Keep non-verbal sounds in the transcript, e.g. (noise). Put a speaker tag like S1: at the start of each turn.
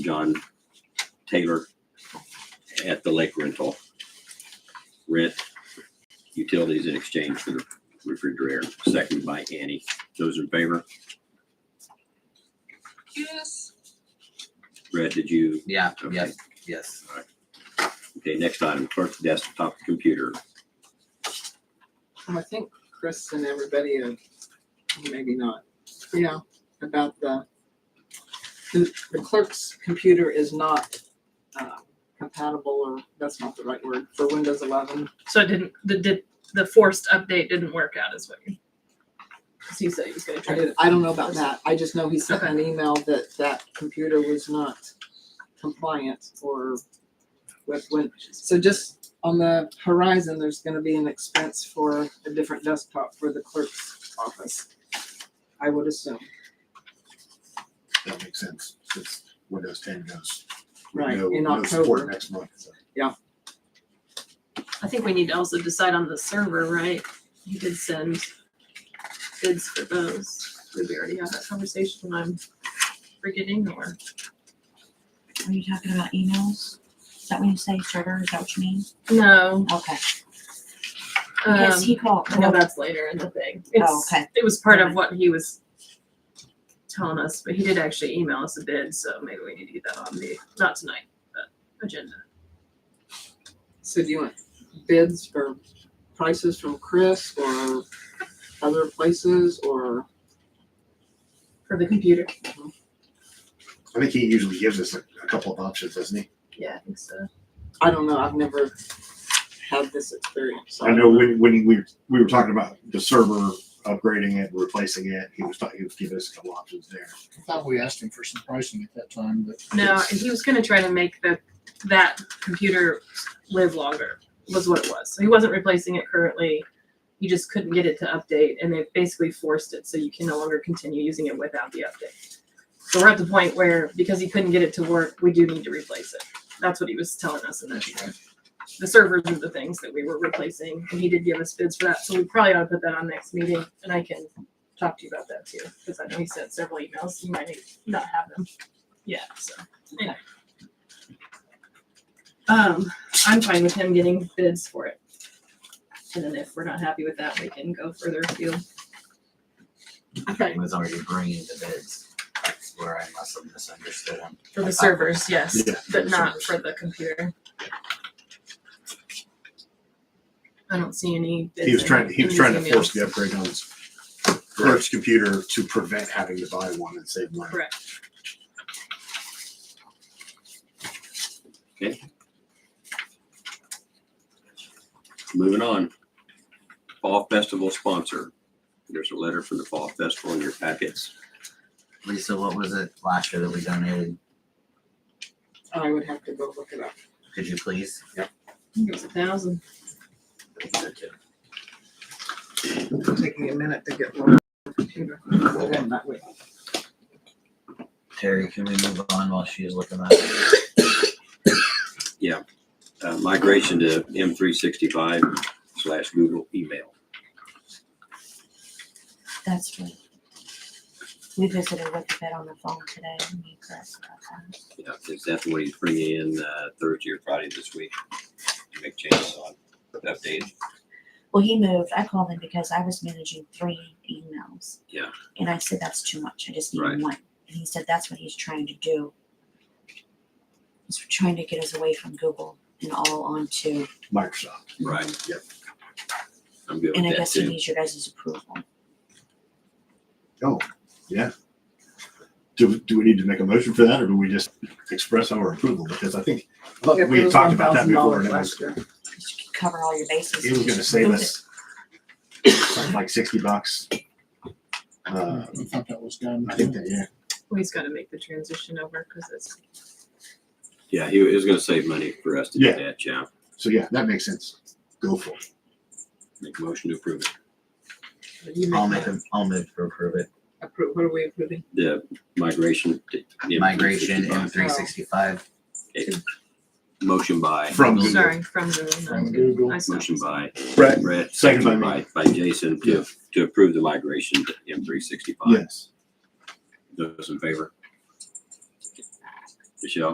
S1: John Taylor at the lake rental. Rent utilities in exchange for the refrigerator, seconded by Annie. Those in favor?
S2: Yes.
S1: Brett, did you?
S3: Yeah,
S1: Okay.
S3: yes, yes.
S1: Okay, next item, clerk's desktop computer.
S4: Um, I think Chris and everybody, have- maybe not, yeah, about the, the the clerk's computer is not uh, compatible, or that's not the right word, for Windows 11.
S2: So it didn't the did the forced update didn't work out as well. Because he said he was gonna
S4: I
S2: try to
S4: did- I don't know about that, I just know he sent an email that that computer was not compliant or with Win. So just on the horizon, there's gonna be an expense for a different desktop for the clerk's office, I would assume.
S5: That makes sense, since Windows ten goes.
S4: Right,
S5: no-
S4: in
S5: no support
S4: October.
S5: Next month, so.
S6: I think we need to also decide on the server, right? He did send bids for those. Did we already have that conversation? I'm forgetting or?
S7: Are you talking about emails? Is that when you say server? Is that what you mean?
S6: No,
S7: Okay. Yes,
S6: um,
S7: he called.
S6: I know that's later in the thing.
S7: Oh,
S6: It's,
S7: okay.
S6: it was part of what he was telling us, but he did actually email us a bid, so maybe we need to get that on the, not tonight, but agenda.
S4: So do you want bids or prices from Chris or other places or?
S6: For the computer?
S5: I think he usually gives us a, a couple of options, doesn't he?
S6: Yeah, I think so.
S4: I don't know, I've never had this experience. so
S5: I know when, when we, we were talking about the server upgrading it, replacing it, he was talking, he was giving us a couple options there.
S8: I thought we asked him for some pricing at that time, but.
S6: No, he was gonna try to make the that computer live longer was what it was. So he wasn't replacing it currently. You just couldn't get it to update and they basically forced it so you can no longer continue using it without the update. So we're at the point where because he couldn't get it to work, we do need to replace it. That's what he was telling us in that email. The servers are the things that we were replacing and he did give us bids for that. So we probably ought to put that on next meeting and I can talk to you about that too. Cause I know he sent several emails. You might not have them yet, so. Um, I'm fine with him getting bids for it. And then if we're not happy with that, we can go further afield.
S3: He was already bringing the bids. That's where I must have misunderstood him.
S6: For the servers, yes,
S5: Yeah, for
S6: but
S5: the
S6: not
S5: servers.
S6: for the computer. I don't see any bids.
S5: He was
S6: in-
S5: trying, he
S6: in
S5: was
S6: these
S5: trying to force
S6: emails.
S5: the upgrade on his clerk's computer to prevent having to buy one and save money.
S6: Correct.
S1: Moving on. Fall Festival sponsor. There's a letter from the Fall Festival in your packets.
S3: Lisa, what was it last year that we donated?
S4: I would have to go look it up.
S3: Could you please?
S6: I think It was a thousand.
S4: Taking a minute to get loaded on the computer. Hold on, that way.
S3: Terry, can we move on while she's looking at it?
S1: Uh, migration to M three sixty-five slash Google email.
S7: That's right. We visited with the vet on the phone today. and he corrected about that.
S1: Yeah, Is that the way he's bringing in, uh, Thursday or Friday this week? To make changes on, update.
S7: Well, he moved. I called him because I was managing three emails.
S1: Yeah.
S7: And I said, that's too much. I just need
S1: Right.
S7: one. And he said, that's what he's trying to do. He's trying to get us away from Google and all onto,
S5: Microsoft.
S1: Right.
S5: Yep.
S1: I'm good
S7: and I
S1: with that
S7: guess he
S1: too.
S7: needs your guys' approval.
S5: Oh, yeah. Do, do we need to make a motion for that or do we just express our approval? Because I think, look,
S4: It
S5: we had
S4: was
S5: talked about that
S4: $1,000
S5: before and it was,
S4: last year.
S7: Just cover all your bases.
S5: it was gonna save us (coughs) something like sixty bucks.
S8: I
S5: Uh,
S8: thought that was done.
S5: I think that, yeah,
S6: Well, he's gotta make the transition over because it's,
S1: Yeah, he was gonna save money for us to do
S5: Yeah.
S1: that, yeah.
S5: so yeah, that makes sense. Go for it.
S1: Make a motion to approve it.
S4: You
S3: I'll make
S4: make
S3: him, I'll move to approve it.
S4: that appro- What are we approving?
S1: The migration. to M365.
S3: Migration M three sixty-five.
S1: Motion by,
S5: From Google.
S6: sorry, from Google.
S8: From Google.
S6: I stopped.
S1: motion by
S5: Brett,
S1: Brett,
S5: Second by
S1: seconded by, by Jason to, to approve the migration to M three sixty-five.
S5: yes.
S1: Those in favor? Michelle?